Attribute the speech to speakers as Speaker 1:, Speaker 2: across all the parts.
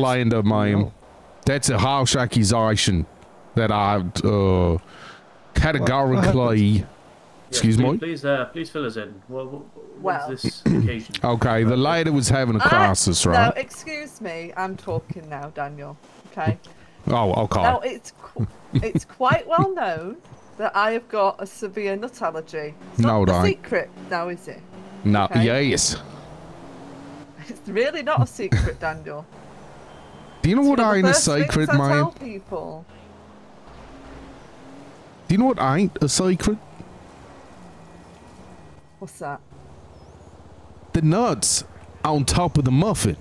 Speaker 1: land of mine. That's a harsh accusation that I uh, categorically. Excuse
Speaker 2: please,
Speaker 1: me?
Speaker 2: Please, uh, please fill us in. What, what,
Speaker 3: Well.
Speaker 2: what's this occasion?
Speaker 1: Okay, the lady was having a
Speaker 3: I-
Speaker 1: crisis,
Speaker 3: Now,
Speaker 1: right?
Speaker 3: Ah, excuse me, I'm talking now, Daniel. Okay.
Speaker 1: oh, okay.
Speaker 3: Now, it's qu- it's quite well known that I have got a severe nut allergy. It's
Speaker 1: No,
Speaker 3: not
Speaker 1: it
Speaker 3: a
Speaker 1: ain't.
Speaker 3: secret now, is it?
Speaker 1: no,
Speaker 3: okay.
Speaker 1: yes.
Speaker 3: It's really not a secret, Daniel.
Speaker 1: Do you know
Speaker 3: It's
Speaker 1: what
Speaker 3: one of
Speaker 1: ain't
Speaker 3: the
Speaker 1: a
Speaker 3: first things
Speaker 1: secret,
Speaker 3: I
Speaker 1: man?
Speaker 3: tell people.
Speaker 1: Do you know what ain't a secret?
Speaker 3: What's that?
Speaker 1: The nuts on top of the muffin.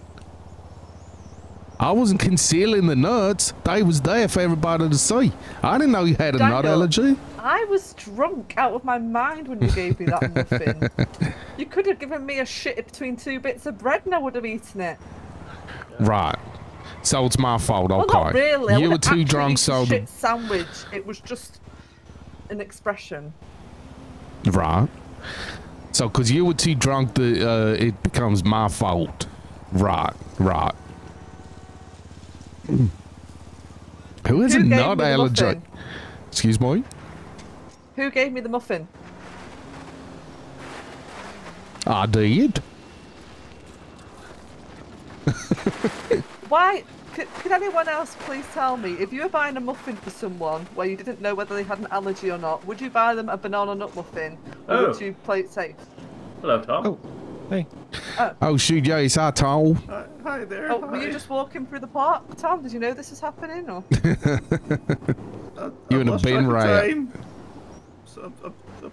Speaker 1: I wasn't concealing the nuts. They was there for everybody to see. I didn't know you had a nut
Speaker 3: Daniel.
Speaker 1: allergy.
Speaker 3: I was drunk out of my mind when you gave me that muffin. you could have given me a shit between two bits of bread and I would have eaten it.
Speaker 1: Right. So it's my fault,
Speaker 3: Well,
Speaker 1: okay.
Speaker 3: not really. I
Speaker 1: Oh, You were
Speaker 3: wouldn't
Speaker 1: too
Speaker 3: actually
Speaker 1: drunk,
Speaker 3: eat a
Speaker 1: so the
Speaker 3: shit sandwich. It was just an expression.
Speaker 1: Right. So, because you were too drunk, the uh, it becomes my fault. Right, right. Who is
Speaker 3: Who
Speaker 1: it
Speaker 3: gave
Speaker 1: not
Speaker 3: me the
Speaker 1: allergic?
Speaker 3: muffin?
Speaker 1: Excuse me?
Speaker 3: Who gave me the muffin?
Speaker 1: I did.
Speaker 3: Why? Could, could anyone else please tell me if you were buying a muffin for someone where you didn't know whether they had an allergy or not? Would you buy them a banana nut muffin, or
Speaker 2: Oh.
Speaker 3: would you play it safe?
Speaker 2: Hello, Tom.
Speaker 4: Oh, hey.
Speaker 1: Oh, shoot, yes, I told.
Speaker 2: Hi, hi there.
Speaker 3: Oh, were you just walking through the park, Tom? Did you know this was happening? Or
Speaker 1: You in a bin riot.
Speaker 2: I'm,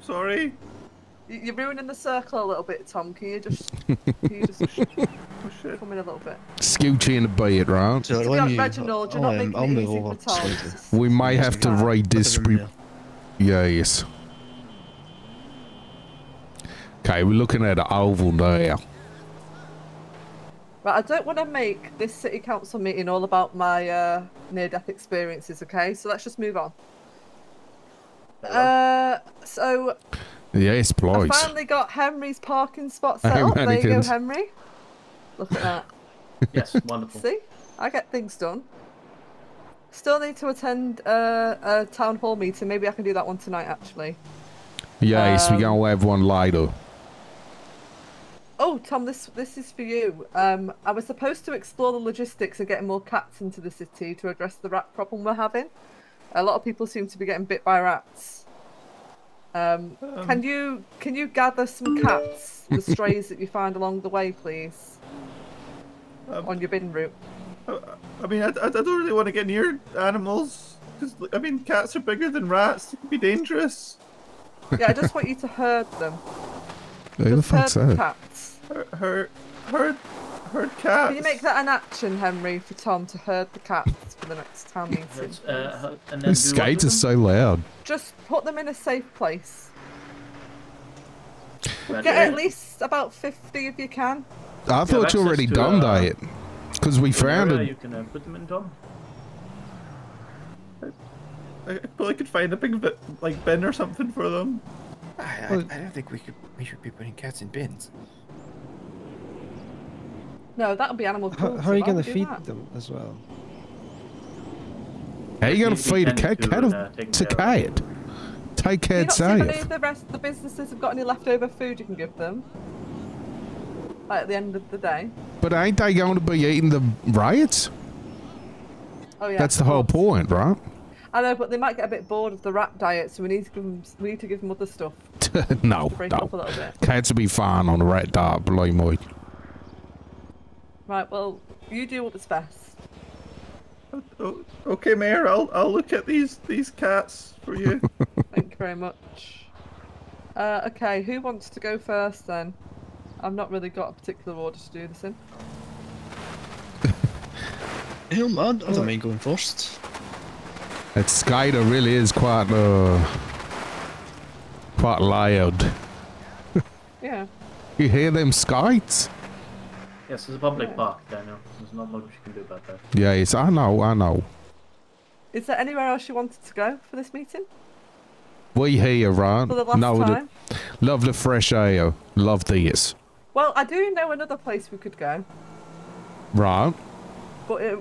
Speaker 2: sorry.
Speaker 3: You- you're ruining the circle a little bit, Tom? Can you just, can you just come in a little bit?
Speaker 1: Scooch in the bed, right?
Speaker 4: So
Speaker 3: To be
Speaker 4: when
Speaker 3: honest,
Speaker 4: you,
Speaker 3: Reginald, you're
Speaker 4: I'll,
Speaker 3: not
Speaker 1: Oh,
Speaker 4: um,
Speaker 3: making
Speaker 4: I'll
Speaker 3: it
Speaker 4: move
Speaker 3: easy
Speaker 4: over
Speaker 3: for
Speaker 4: to
Speaker 3: Tom.
Speaker 4: Slater.
Speaker 3: Just-
Speaker 1: We may have to
Speaker 3: Right.
Speaker 1: read
Speaker 4: Put
Speaker 1: this.
Speaker 4: them in
Speaker 1: Re- yes. Okay, we're looking at an oval now.
Speaker 3: Right, I don't want to make this city council meeting all about my uh, near-death experiences. Okay, so let's just move on. Uh, so
Speaker 1: Yes, please.
Speaker 3: I finally got Henry's parking spot set
Speaker 1: Hey,
Speaker 3: up. There you go,
Speaker 1: mannequins.
Speaker 3: Henry. Look at that.
Speaker 2: Yes, wonderful.
Speaker 3: See, I get things done. Still need to attend uh, a town hall meeting. Maybe I can do that one tonight, actually.
Speaker 1: Yes,
Speaker 3: Um,
Speaker 1: we're going to have one later.
Speaker 3: Oh, Tom, this this is for you. Um, I was supposed to explore the logistics of getting more cats into the city to address the rat problem we're having. A lot of people seem to be getting bit by rats. Um, can you can you gather some cats, the strays that you find along the way, please,
Speaker 5: Um,
Speaker 3: on your bin route?
Speaker 5: I mean, I, I I don't really want to get near animals. Cause, I mean, cats are bigger than rats. They can be dangerous.
Speaker 3: Yeah, I just want you to herd them.
Speaker 1: Who the
Speaker 3: Just herd
Speaker 1: fuck's
Speaker 3: the
Speaker 1: that?
Speaker 3: cats.
Speaker 5: Hurt, hurt, hurt, hurt cats.
Speaker 3: Can you make that an action, Henry, for Tom to herd the cats for the next town meeting?
Speaker 2: Let's, uh,
Speaker 1: These
Speaker 2: and then do what with
Speaker 1: skates are
Speaker 2: them?
Speaker 1: so loud.
Speaker 3: Just put them in a safe place.
Speaker 2: Right,
Speaker 3: Get
Speaker 2: uh,
Speaker 3: at least about 50 if you can.
Speaker 1: I thought you
Speaker 2: access
Speaker 1: already
Speaker 2: to,
Speaker 1: done
Speaker 2: uh,
Speaker 1: that. Because we found
Speaker 2: area
Speaker 1: it.
Speaker 2: You can uh, put them in, Tom.
Speaker 5: I, well, I could find a big bit, like bin or something for them.
Speaker 4: I, I, I don't think we could. We should be putting cats in bins.
Speaker 3: No, that would be animal cruelty.
Speaker 4: How, how are you
Speaker 3: Why would
Speaker 4: gonna
Speaker 3: Oh, do
Speaker 4: feed
Speaker 3: that?
Speaker 4: them as well?
Speaker 1: How you gonna
Speaker 2: You- you
Speaker 1: feed a
Speaker 2: can
Speaker 1: cat?
Speaker 2: do
Speaker 1: Cat
Speaker 2: it,
Speaker 1: of-
Speaker 2: uh, take
Speaker 1: to
Speaker 2: care of
Speaker 1: cat. Take
Speaker 3: Do you
Speaker 1: cat
Speaker 3: not see if any
Speaker 1: safe.
Speaker 3: of the rest of the businesses have got any leftover food you can give them? Like at the end of the day.
Speaker 1: But ain't they going to be eating the riots?
Speaker 3: Oh yeah.
Speaker 1: That's the whole point, right?
Speaker 3: I know, but they might get a bit bored of the rat diet, so we need to give them we need to give them other stuff
Speaker 1: no,
Speaker 3: to break up a
Speaker 1: no.
Speaker 3: little bit.
Speaker 1: Cats will be fine on the rat diet, believe me.
Speaker 3: Right. Well, you do what's best.
Speaker 5: Oh, okay, Mayor, I'll I'll look at these these cats for you.
Speaker 3: Thank you very much. Uh, okay, who wants to go first then? I've not really got a particular order to do this in.
Speaker 4: Hell, man, I don't mind going first.
Speaker 1: That skater really is quite uh quite loud.
Speaker 3: Yeah.
Speaker 1: You hear them skates?
Speaker 2: Yes, it's a public park, Daniel. There's not much you can do about that.
Speaker 1: Yes, I know, I know.
Speaker 3: Is there anywhere else you wanted to go for this meeting?
Speaker 1: We here, right?
Speaker 3: For the last
Speaker 1: no,
Speaker 3: time?
Speaker 1: love the fresh air. Love this.
Speaker 3: Well, I do know another place we could go.
Speaker 1: Right.
Speaker 3: But it